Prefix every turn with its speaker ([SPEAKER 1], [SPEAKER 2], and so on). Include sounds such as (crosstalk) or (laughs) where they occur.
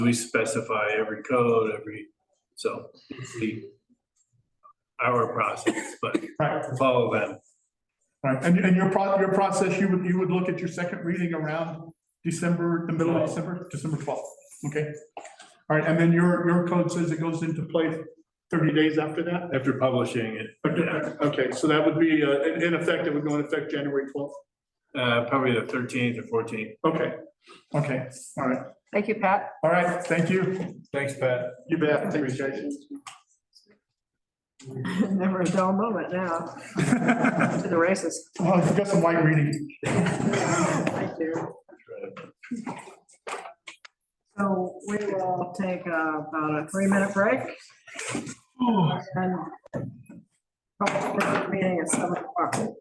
[SPEAKER 1] we specify every code, every, so it's the our process, but
[SPEAKER 2] Right,
[SPEAKER 1] follow them.
[SPEAKER 2] right. And, and your pro, your process, you would, you would look at your second reading around December, the middle of December, December twelfth, okay? All right, and then your, your code says it goes into place thirty days after that?
[SPEAKER 1] After publishing it,
[SPEAKER 2] Okay, Okay, so that would be, uh, in, in effect, it would go in effect January twelfth.
[SPEAKER 1] uh, probably the thirteenth or fourteenth.
[SPEAKER 2] Okay, okay, all right,
[SPEAKER 3] Thank you, Pat.
[SPEAKER 2] all right, thank you.
[SPEAKER 1] Thanks, Pat.
[SPEAKER 2] You bet, thanks, Jason. (laughs)
[SPEAKER 3] (laughs) Never a dull moment now,
[SPEAKER 2] Well,
[SPEAKER 3] to the races.
[SPEAKER 2] I've got some light reading.
[SPEAKER 3] Thank you. So we will take uh, about a three-minute break and. Meeting at seven o'clock.